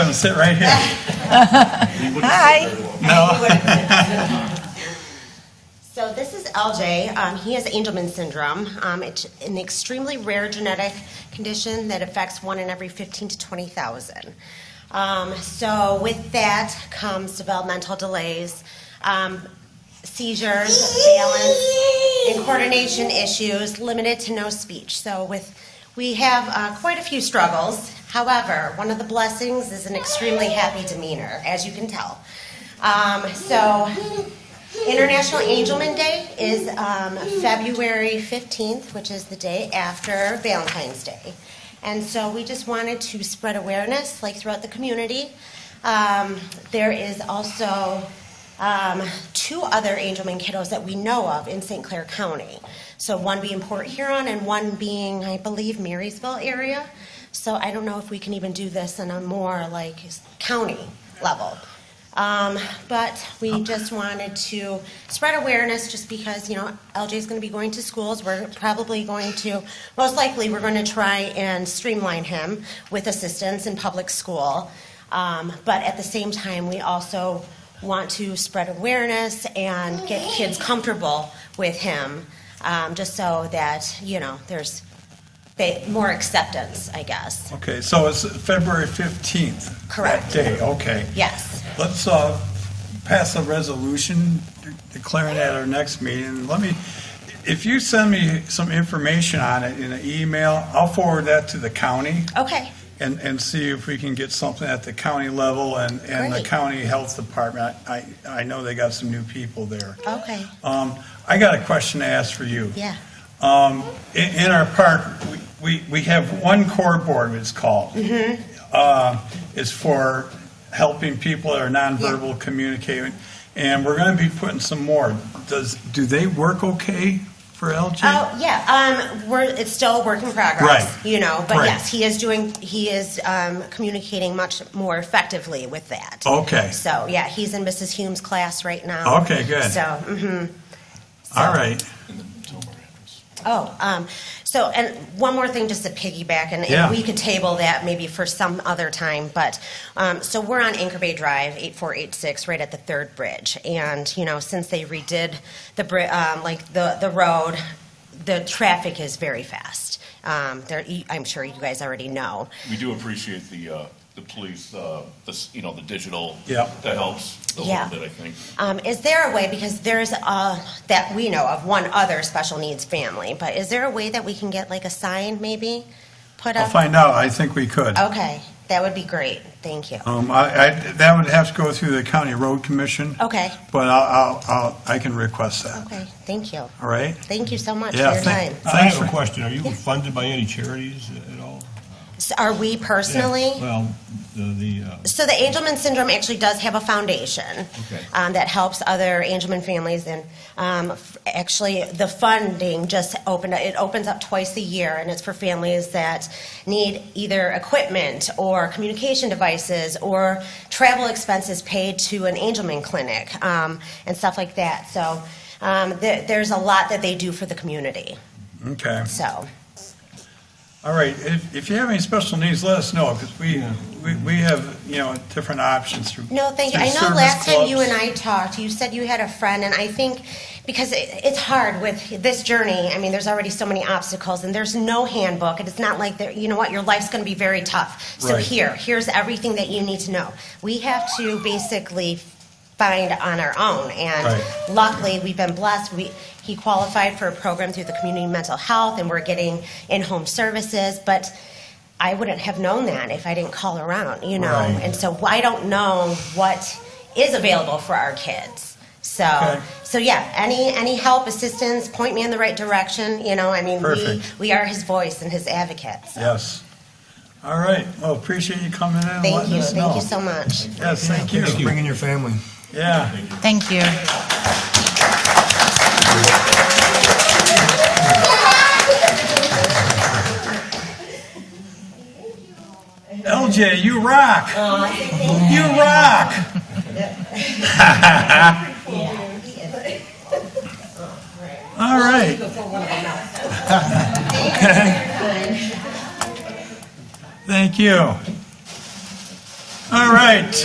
you sit right here. Hi. So this is LJ. Um, he has Angelman syndrome. Um, it's an extremely rare genetic condition that affects one in every 15 to 20,000. Um, so with that comes developmental delays, um, seizures, balance, and coordination issues, limited to no speech. So with we have uh, quite a few struggles. However, one of the blessings is an extremely happy demeanor, as you can tell. Um, so International Angelman Day is um, February 15th, which is the day after Valentine's Day. And so we just wanted to spread awareness like throughout the community. Um, there is also um, two other Angelman kiddos that we know of in St. Clair County. So one being Port Huron and one being, I believe, Marysville area. So I don't know if we can even do this on a more like county level. Um, but we just wanted to spread awareness just because, you know, LJ is going to be going to schools. We're probably going to, most likely, we're going to try and streamline him with assistance in public school. Um, but at the same time, we also want to spread awareness and get kids comfortable with him um, just so that, you know, there's they, more acceptance, I guess. Okay, so it's February 15th? Correct. That day, okay. Yes. Let's uh, pass a resolution declaring at our next meeting. Let me, if you send me some information on it in an email, I'll forward that to the county Okay. and, and see if we can get something at the county level and, and the Great. county health department. I, I know they got some new people there. Okay. Um, I got a question to ask for you. Yeah. Um, in, in our park, we, we, we have one core board, it's called. Mm-hmm. Uh, it's for helping people that are nonverbal communicating, and we're gonna be putting some more. Does, do they work okay for LJ? Oh yeah, um, we're it's still a work in progress. Right. You know, but Right. yes, he is doing. He is um, communicating much more effectively with that. Okay, So yeah, he's in Mrs. Hume's class right now. okay, good. So mhm. All right, oh, um, so and one more thing, just to piggyback, and, Yeah. and we could table that maybe for some other time. But um, so we're on Anchor Bay Drive, eight four eight six, right at the third bridge, and you know since they redid the bri- um, like the the road the traffic is very fast. Um, there, you- I'm sure you guys already know. We do appreciate the, uh, the police, uh, this, you know, the digital. Yeah. That helps a Yeah. little bit, I think. Um, is there a way, because there's uh, that we know of one other special needs family, but is there a way that we can get like a sign maybe put up? I'll find out, I think we could. Okay, that would be great. Thank you. Um, I, I, that would have to go through the county road commission, Okay, but I'll, I'll- I'll, I can request that, okay, thank you. all right? Thank you so much Yeah, for your thank- time. I have a question. Are you funded by any charities at all? So Are we personally? Well, the, the, uh, So the Angelman syndrome actually does have a foundation Okay. um, that helps other Angelman families, and um, f- actually the funding just opened. It opens up twice a year, and it's for families that need either equipment or communication devices or travel expenses paid to an Angelman clinic um, and stuff like that. So um, there there's a lot that they do for the community. Okay. So All right, if, if you have any special needs, let us know, because we, we, we have, you know, different options through. No, thank you. I through know service last time you clubs. and I talked, you said you had a friend, and I think because it, it's hard with this journey. I mean, there's already so many obstacles, and there's no handbook, and it's not like there, you know what, your life's going to be very tough. So Right. here, here's everything that you need to know. We have to basically find on our own, and Right. luckily we've been blessed. We he qualified for a program through the community mental health, and we're getting in-home services, but. I wouldn't have known that if I didn't call around, you know. Right. And so I don't know what is available for our kids. So Okay. so yeah, any any help, assistance, point me in the right direction, you know. I mean, Perfect. we we are his voice and his advocate. So Yes. All right, well, appreciate you coming in and thank letting you. us know. Thank you so much. Yes, thank you. you. Bringing your family. Yeah. Thank you. LJ, you rock. You rock. All right. Thank you. All right.